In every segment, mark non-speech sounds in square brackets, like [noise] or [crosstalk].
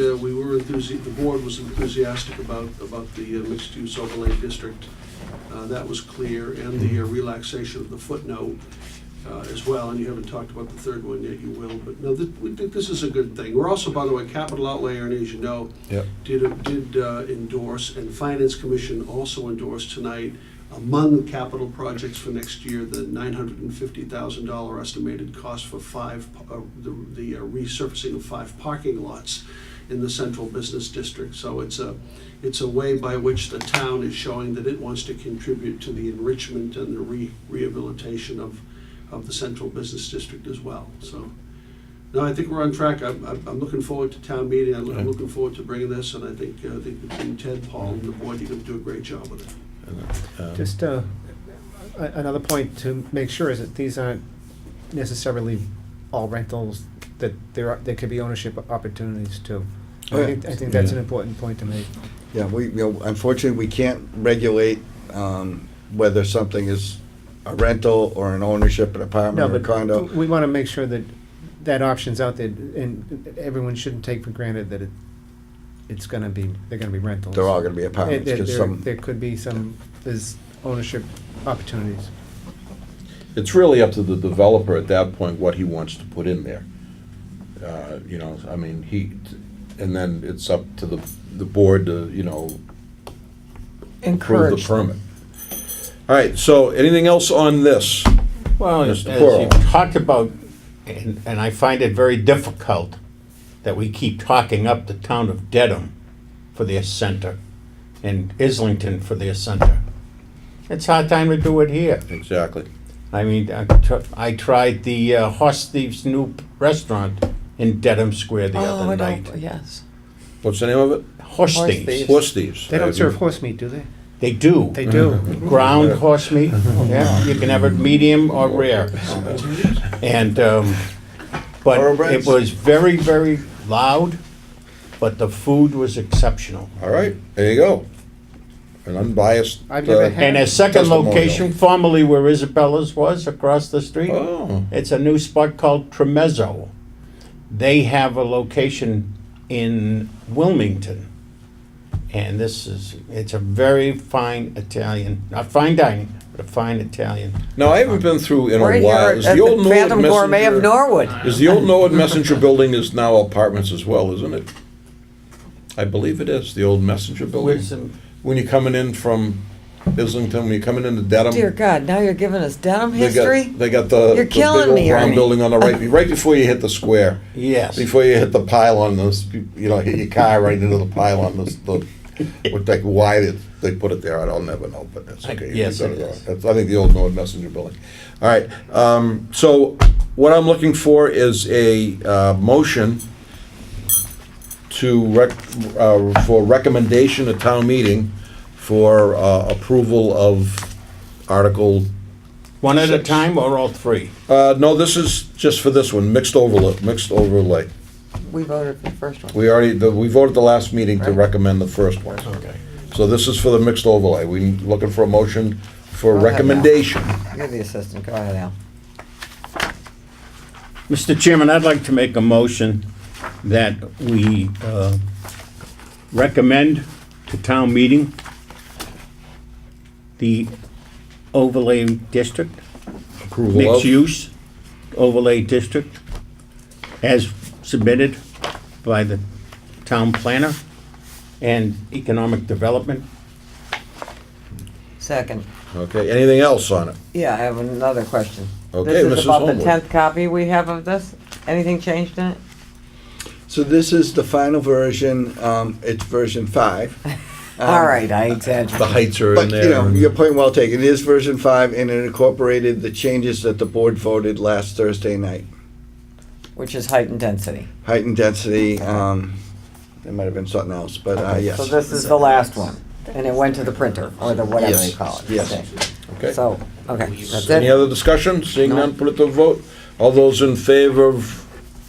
uh, were enthusi, the board was enthusiastic about, about the uh, mixed-use overlay district. Uh, That was clear, and the uh, relaxation of the footnote uh, as well, and you haven't talked about the third one yet, you will, but no, th- we think this is a good thing. We're also, by the way, capital outlay, Ernie, as you know, Yep. did, did uh, endorse, and Finance Commission also endorsed tonight, among capital projects for next year, the nine hundred and fifty thousand dollar estimated cost for five, pa- uh, the, the uh, resurfacing of five parking lots in the central business district. So it's a, it's a way by which the town is showing that it wants to contribute to the enrichment and the re, rehabilitation of, of the central business district as well, so. No, I think we're on track. I'm, I'm I'm looking forward to town meeting. I'm I'm looking forward to bringing this, and I think, uh, I think between Ted, Paul, and the board, you're gonna do a great job with it. Um, Just uh, a- another point to make sure is that these aren't necessarily all rentals, that there are, there could be ownership opportunities too. Oh, I think, I think that's an Yeah. important point to make. Yeah, we, you know, unfortunately, we can't regulate um, whether something is a rental or an ownership, an No, apartment or a but condo. We want to make sure that that option's out there and everyone shouldn't take for granted that it, it's going to be, they're going to be rentals. They're all gonna be There- apartments, there- 'cause there- some, There could be some, there's ownership opportunities. It's really up to the developer at that point what he wants to put in there. Uh, You know, I mean, he, and then it's up to the, the board to, you know, approve the Encourage. permit. All right, so anything else on this? Well, as Mr. as Quirrell. you've talked about, and, and I find it very difficult that we keep talking up the town of Dedham for their center and Islington for their center. It's hard time to do it here. Exactly. I mean, I tr- I tried the uh, Horse Thieves New Restaurant in Dedham Square the Oh, I other don't- night. Yes. What's the name of it? Horse Horse Thieves. Thieves. Horse Thieves. They don't serve horse meat, do they? They do. Mm-hmm. They do. ground horse [laughs] meat. Yeah, you can have it medium or rare. And, um, but it Thoroughbreds? was very, very loud, but the food was exceptional. All right, there you go. An unbiased. I've never uh, had- And a second Testimonial. location, formerly where Isabella's was, across the street, Oh, it's a new spot called Tremezzo. They have a location in Wilmington. And this is, it's a very fine Italian, not fine dining, but a fine Italian. now I haven't been through in We're a while. here Is at the old uh, the Norwood Phantom Gourmet of Messenger- Norwood. Is the old Norwood Messenger building is now apartments as well, isn't it? I believe it is, the old Messenger building. Where's the- When you're coming in from Islington, when you're coming into Dedham. Dear God, now you're giving us Dedham they got- history? They got the. You're the killing big old me, Brown Ernie. building on the right, right before you hit the square, Yes. before you hit the pylon, those, you know, hit your car right into the pylon, those, the, what, like, why did they put it there, I don't never know, but that's I- okay. You yes, got it wrong. is. That's, I think the old Norwood Messenger building. All right, um, so what I'm looking for is a, uh, motion to rec, uh, for recommendation at town meeting for, uh, approval of Article One at a Six. time or all three? Uh, no, this is just for this one, mixed overlay, mixed overlay. We voted for the first one. We already, the- we voted the last meeting to Right. recommend the first one. Okay. So this is for the mixed overlay. We looking for a motion for Go ahead, Al. recommendation. You're the assistant, go ahead, Al. Mr. Chairman, I'd like to make a motion that we uh, recommend to town meeting the overlay district, Approval of. mixed use overlay district, as submitted by the town planner and economic development. Second. Okay, anything else on it? Yeah, I have another question. Okay, This Mrs. is about the Holmwood. tenth copy we have of this? Anything changed in it? so this is the final version, um, it's version [laughs] five. Um, Um, All right, I exaggerated. [laughs] The heights are in But, you know, there. your point well taken, it is version five, and it incorporated the changes that the board voted last Thursday night. Which is height and density. Height and density, um, there might have been something else, but, uh, yes. So this is the last one, and it went to the printer, or the whatever they Yes, call it. yes. Okay. Okay. So, okay, that's Any it. other discussion? Seeing No. none, put it to vote. All those in favor of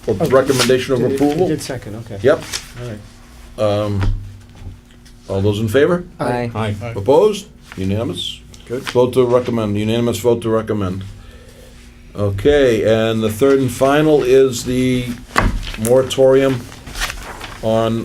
of recommendation of Did it- approval? Did second, okay. Yep. All right. Um, All those in favor? Aye. Aye. Opposed? Unanimous? Good. Vote to recommend, unanimous vote to recommend. Okay, and the third and final is the moratorium on